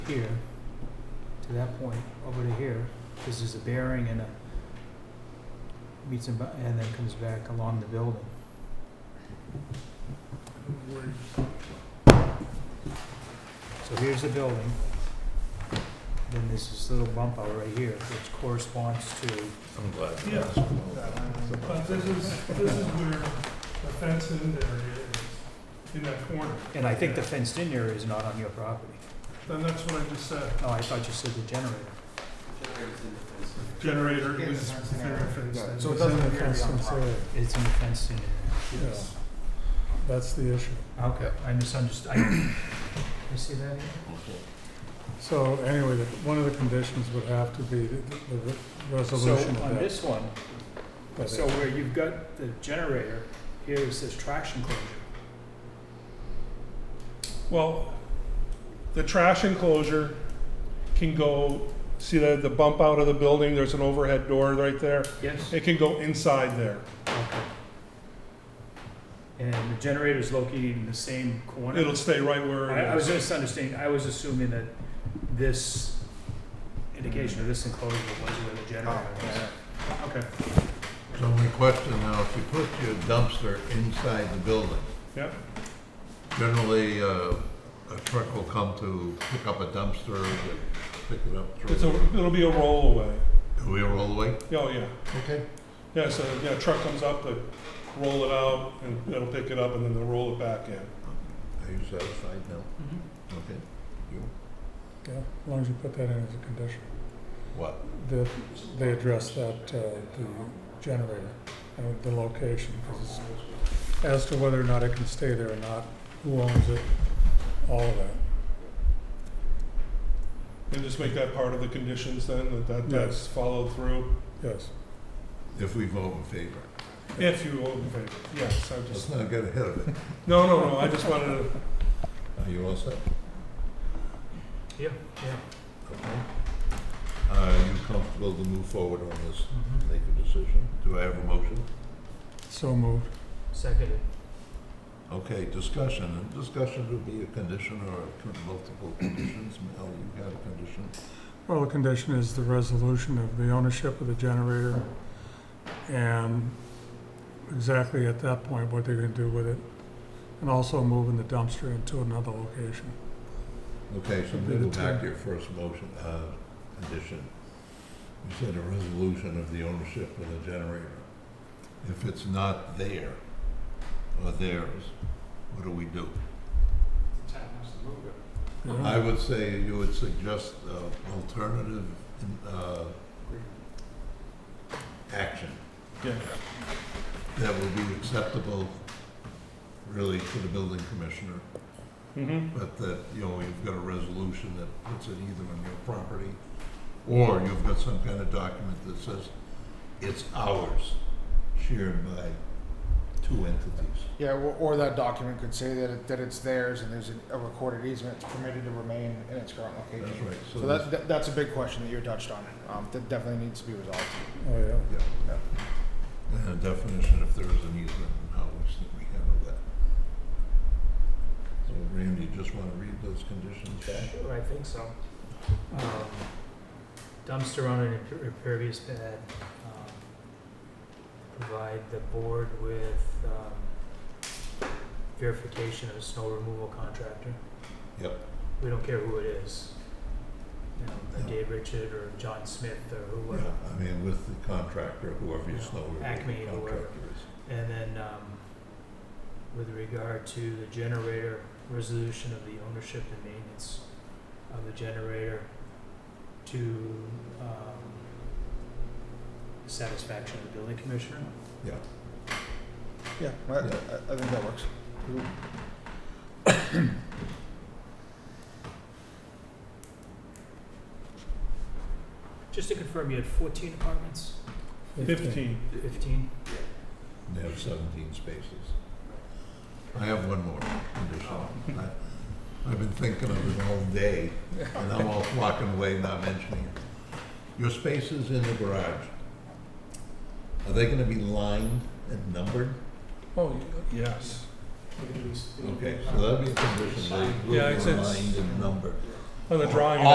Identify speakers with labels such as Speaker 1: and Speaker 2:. Speaker 1: here to that point over to here, this is a bearing and a meets and, bu- and then comes back along the building. So here's the building. Then there's this little bump out right here, which corresponds to
Speaker 2: I'm glad. you
Speaker 3: Yeah.
Speaker 2: asked.
Speaker 3: But this is, this is where the fence in there is, in that corner.
Speaker 1: And I think the fenced-in area is not on your property.
Speaker 3: Then that's what I just said,
Speaker 1: Oh, I thought you said the generator.
Speaker 3: generator is very fenced in.
Speaker 1: So it doesn't appear to be on property. It's in the fenced-in area.
Speaker 3: Yes.
Speaker 4: That's the issue.
Speaker 1: Okay, I misunderstood. I- You see that? here?
Speaker 4: So anyway, the- one of the conditions would have to be the the re-
Speaker 1: So
Speaker 4: resolution of
Speaker 1: on
Speaker 4: that.
Speaker 1: this one,
Speaker 4: that
Speaker 1: so where you've got the generator, here it says traction closure.
Speaker 3: Well, the trash enclosure can go, see that the bump out of the building, there's an overhead door right there.
Speaker 1: Yes.
Speaker 3: It can go inside there.
Speaker 1: Okay. And the generator's located in the same corner?
Speaker 3: It'll stay right where
Speaker 1: I, I
Speaker 3: it
Speaker 1: was
Speaker 3: is.
Speaker 1: misunderstanding, I was assuming that this indication of this enclosure was where the generator was. Okay,
Speaker 2: So my question now, if you put your dumpster inside the building,
Speaker 3: Yep,
Speaker 2: generally, uh, a truck will come to pick up a dumpster, and pick it up,
Speaker 3: it's
Speaker 2: throw
Speaker 3: a,
Speaker 2: it.
Speaker 3: it'll be a rollaway.
Speaker 2: Do we roll away?
Speaker 3: Oh, yeah.
Speaker 2: Okay.
Speaker 3: Yeah, so, yeah, truck comes up, they roll it out, and it'll pick it up, and then they'll roll it back in.
Speaker 2: Are you satisfied now?
Speaker 3: Mm-hmm.
Speaker 2: Okay. You,
Speaker 4: Yeah, As long as you put that in as a condition,
Speaker 2: what?
Speaker 4: that they address that, uh, the generator and the location. 'cause it's- As to whether or not it can stay there or not, who owns it, all of that.
Speaker 3: And just make that part of the conditions then, that that that's
Speaker 4: Yes.
Speaker 3: followed through,
Speaker 4: Yes,
Speaker 2: If we vote in favor.
Speaker 3: if you vote in favor. Yes, I
Speaker 2: Let's
Speaker 3: just,
Speaker 2: not get ahead of it.
Speaker 3: no, no, no, I just wanted to,
Speaker 2: Are you all set?
Speaker 1: yeah,
Speaker 2: Okay. Are you comfortable to move forward on this,
Speaker 1: yeah.
Speaker 2: make a decision? Do I have a motion?
Speaker 4: so moved.
Speaker 1: Seconded.
Speaker 2: Okay, discussion, and discussion would be a condition or a con- multiple conditions, Mel, you got a condition?
Speaker 4: Well, the condition is the resolution of the ownership of the generator and exactly at that point, what they're gonna do with it. And also moving the dumpster into another location.
Speaker 2: Okay, so
Speaker 4: Should
Speaker 2: we
Speaker 4: be
Speaker 2: go
Speaker 4: the
Speaker 2: back to
Speaker 4: two.
Speaker 2: your first motion, uh, condition. You said a resolution of the ownership of the generator. If it's not there, or theirs, what do we do?
Speaker 4: you know?
Speaker 2: I would say you would suggest uh, alternative uh, action
Speaker 3: yeah,
Speaker 2: that would be acceptable, really, to the building commissioner,
Speaker 3: mm-hmm,
Speaker 2: but that, you know, you've got a resolution that puts it either on your property, or you've got some kind of document that says it's ours, shared by two entities.
Speaker 5: Yeah, or, or that document could say that, it, that it's theirs and there's a, a recorded easement, it's permitted to remain in its current location.
Speaker 2: That's right.
Speaker 5: So that, that, that's a big question that you touched on, um, that definitely needs to be resolved.
Speaker 4: Oh, yeah.
Speaker 2: Yeah, yeah. And a definition if there is an easement and how we s- we handle that. So Randy, you just wanna read those conditions back?
Speaker 1: Sure, I think so. Um, Dumpster on an imper- impervious pad. um, Provide the board with um, verification of a snow removal contractor.
Speaker 2: Yep.
Speaker 1: We don't care who it is. You know,
Speaker 2: Yeah.
Speaker 1: Dave Richard or John Smith or whoever.
Speaker 2: Yeah, I mean, with the contractor, whoever your
Speaker 1: Yeah,
Speaker 2: snow removal
Speaker 1: Acme, whoever.
Speaker 2: contractor is.
Speaker 1: And then, um, with regard to the generator, resolution of the ownership and maintenance of the generator to, um, the satisfaction of the building commissioner.
Speaker 5: Yeah, I, I, I think that works.
Speaker 1: Just to confirm, you had fourteen apartments,
Speaker 3: fifteen.
Speaker 1: fifteen?
Speaker 2: And they have seventeen spaces. I have one more condition. I, I've been thinking of it all day, and I'm all walking away not mentioning it. Your spaces in the garage, are they gonna be lined and numbered?
Speaker 3: Oh, yes.
Speaker 2: Okay, so that'd be a condition, they will
Speaker 3: Yeah, it's-
Speaker 2: be
Speaker 3: it's-
Speaker 2: lined and numbered.
Speaker 4: on the drawing.